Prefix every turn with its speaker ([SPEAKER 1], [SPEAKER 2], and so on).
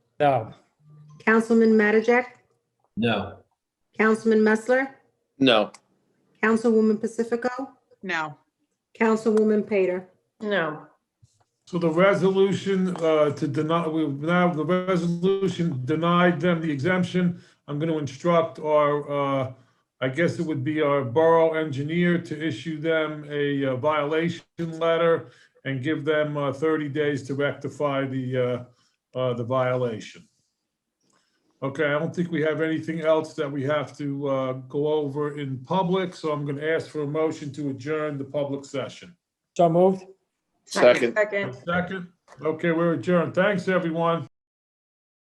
[SPEAKER 1] No,
[SPEAKER 2] Councilman Mattajak,
[SPEAKER 3] No.
[SPEAKER 2] Councilman Messler,
[SPEAKER 3] No.
[SPEAKER 2] Councilwoman Pacifico,
[SPEAKER 4] No,
[SPEAKER 2] Councilwoman Pater.
[SPEAKER 5] No,
[SPEAKER 6] So the resolution uh, to deny, we now, the resolution denied them the exemption. I'm going to instruct our, uh, I guess it would be our borough engineer to issue them a uh, violation letter and give them uh, 30 days to rectify the, uh, uh, the violation. Okay, I don't think we have anything else that we have to uh, go over in public, so I'm going to ask for a motion to adjourn the public session.
[SPEAKER 1] so moved.
[SPEAKER 3] Second.
[SPEAKER 5] second.
[SPEAKER 6] Second, okay, we're adjourned. Thanks, everyone.